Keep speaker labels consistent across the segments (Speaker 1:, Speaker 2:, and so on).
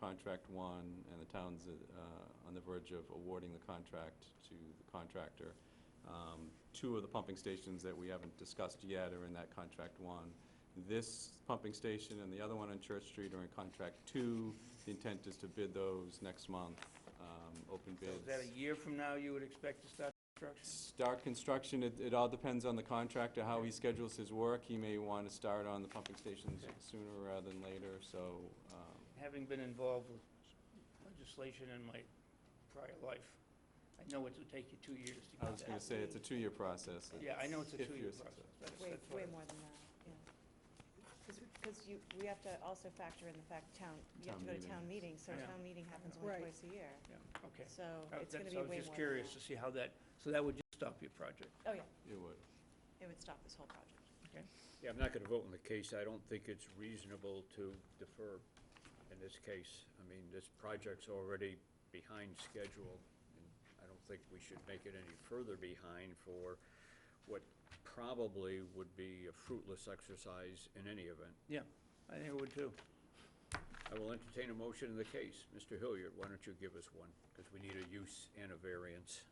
Speaker 1: contract won, and the town's uh, on the verge of awarding the contract to the contractor. Um, Two of the pumping stations that we haven't discussed yet are in that contract one. This pumping station and the other one on Church Street are in contract two. The intent is to bid those next month, um, open
Speaker 2: So
Speaker 1: bids.
Speaker 2: Is that a year from now you would expect to start construction?
Speaker 1: Start construction, it, it all depends on the contractor, how he schedules his work. He may want to start on the pumping stations
Speaker 2: Okay.
Speaker 1: sooner rather than later, so, um,
Speaker 2: Having been involved with legislation in my prior life, I know it would take you two years to
Speaker 1: I
Speaker 2: get
Speaker 1: was gonna
Speaker 2: that.
Speaker 1: say, it's a two-year process.
Speaker 2: Yeah, I know it's a
Speaker 1: If you're
Speaker 2: two-year process.
Speaker 1: successful.
Speaker 2: That's-
Speaker 3: Way,
Speaker 2: that's what
Speaker 3: way
Speaker 2: I-
Speaker 3: more than that, yeah. Because you, we have to also factor in the fact town, you have
Speaker 1: Town
Speaker 3: to go to
Speaker 1: meeting.
Speaker 3: town meeting, so
Speaker 2: Yeah.
Speaker 3: town meeting happens
Speaker 4: Right.
Speaker 3: only twice a year.
Speaker 2: Yeah, okay.
Speaker 3: So
Speaker 2: I-
Speaker 3: it's going to
Speaker 2: that's-
Speaker 3: be way more.
Speaker 2: I was just
Speaker 3: than
Speaker 2: curious
Speaker 3: that.
Speaker 2: to see how that, so that would just stop your project.
Speaker 3: Oh, yeah,
Speaker 1: It would.
Speaker 3: it would stop this whole project.
Speaker 5: Yeah, I'm not gonna vote on the case. I don't think it's reasonable to defer in this case. I mean, this project's already behind schedule, and I don't think we should make it any further behind for what probably would be a fruitless exercise in any event.
Speaker 2: Yeah, I think it would too.
Speaker 5: I will entertain a motion in the case. Mr. Hilliard, why don't you give us one? Because we need a use and a variance.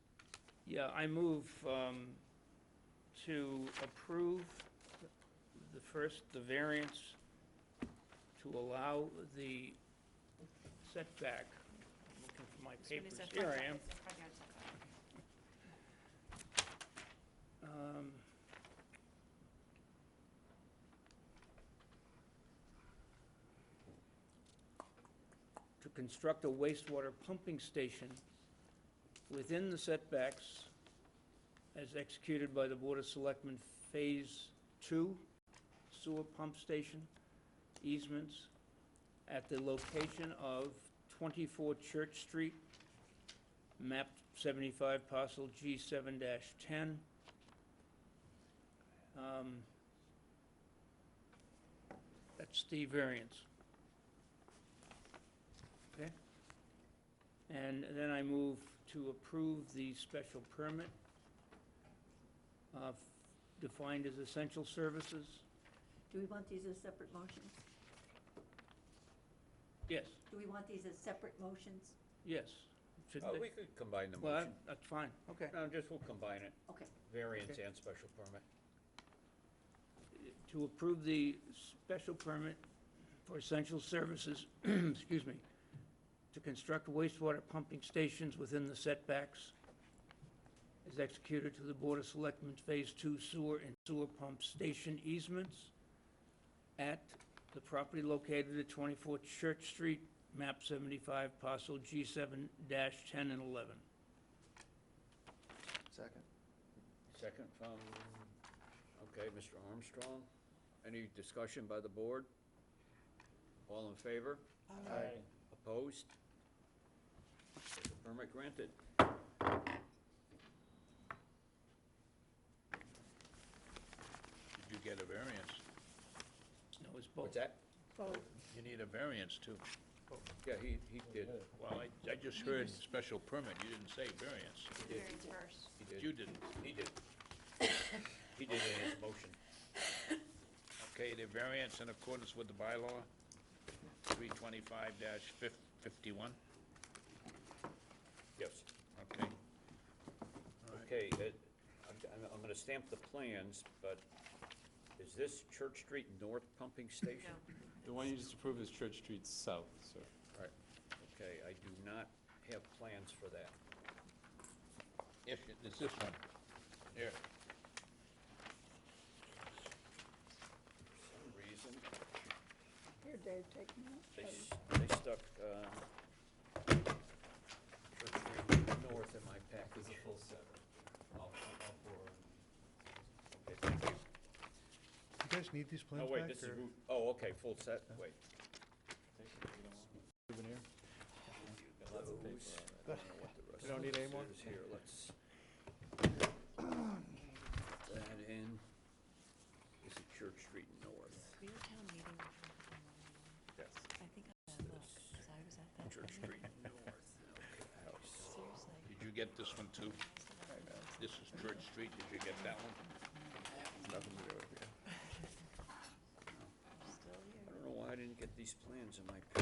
Speaker 2: Yeah, I move um, to approve the first, the variance to allow the setback, I'm looking for my papers, here I am. Um, To construct a wastewater pumping station within the setbacks as executed by the Board of Selectmen Phase Two sewer pump station easements at the location of twenty-four Church Street, map seventy-five parcel G seven ten. Um, That's the variance. Okay? And then I move to approve the special permit uh, f- defined as essential services.
Speaker 6: Do we want these as separate motions?
Speaker 2: Yes,
Speaker 6: Do we want these as separate motions?
Speaker 2: yes. Should
Speaker 5: Uh,
Speaker 2: they-
Speaker 5: we could combine the
Speaker 2: Well,
Speaker 5: motion.
Speaker 2: that- that's fine, okay.
Speaker 5: No, just we'll combine it,
Speaker 6: Okay.
Speaker 5: variance
Speaker 2: Okay.
Speaker 5: and special permit.
Speaker 2: To approve the special permit for essential services, excuse me, to construct wastewater pumping stations within the setbacks is executed to the Board of Selectmen's Phase Two Sewer and Sewer Pump Station easements at the property located at 24 Church Street, map 75, parcel G7-10 and 11.
Speaker 4: Second.
Speaker 5: Second from, okay, Mr. Armstrong. Any discussion by the board? All in favor? Opposed? Special Permit granted.
Speaker 7: Did you get a variance?
Speaker 2: No, it's both.
Speaker 5: What's that?
Speaker 7: You need a variance too.
Speaker 5: Yeah, he, he did,
Speaker 7: Well, I, I just heard special permit, you didn't say variance.
Speaker 3: Variance first.
Speaker 5: he
Speaker 7: You
Speaker 5: did,
Speaker 7: didn't.
Speaker 5: he did. He did in his motion.
Speaker 7: Okay, the variance in accordance with the bylaw, three twenty-five fifty-one,
Speaker 5: Yes.
Speaker 7: okay.
Speaker 5: Okay, it, I'm, I'm- I'm gonna stamp the plans, but is this Church Street North Pumping Station?
Speaker 3: No.
Speaker 1: The one you just approved is Church Street South, sir.
Speaker 5: All right, okay, I do not have plans for that.
Speaker 7: Yes, it's this one. Here,
Speaker 5: For some reason,
Speaker 4: Here, Dave, take that.
Speaker 5: they, s- they stuck, uh, Church Street North in my package.
Speaker 1: full set.
Speaker 5: Okay, thank you.
Speaker 8: You guys need these
Speaker 5: Oh,
Speaker 8: plans
Speaker 5: wait,
Speaker 8: back?
Speaker 5: this is,
Speaker 8: or-
Speaker 5: who- oh, okay, full set, wait. Those. I don't know what the rest
Speaker 8: You don't
Speaker 5: of
Speaker 8: need
Speaker 5: this
Speaker 8: any more?
Speaker 5: is Here, let's. That in, this is Church Street North,
Speaker 3: Were you at town meeting? when you were on the-
Speaker 5: yes,
Speaker 3: I think I had a look, 'cause I was at that.
Speaker 5: Church
Speaker 3: meeting.
Speaker 5: Street North, okay.
Speaker 3: Seriously.
Speaker 7: did you get this one too? This is Church Street, did you get that one?
Speaker 3: Still here.
Speaker 5: I don't know why I didn't get these plans in my package.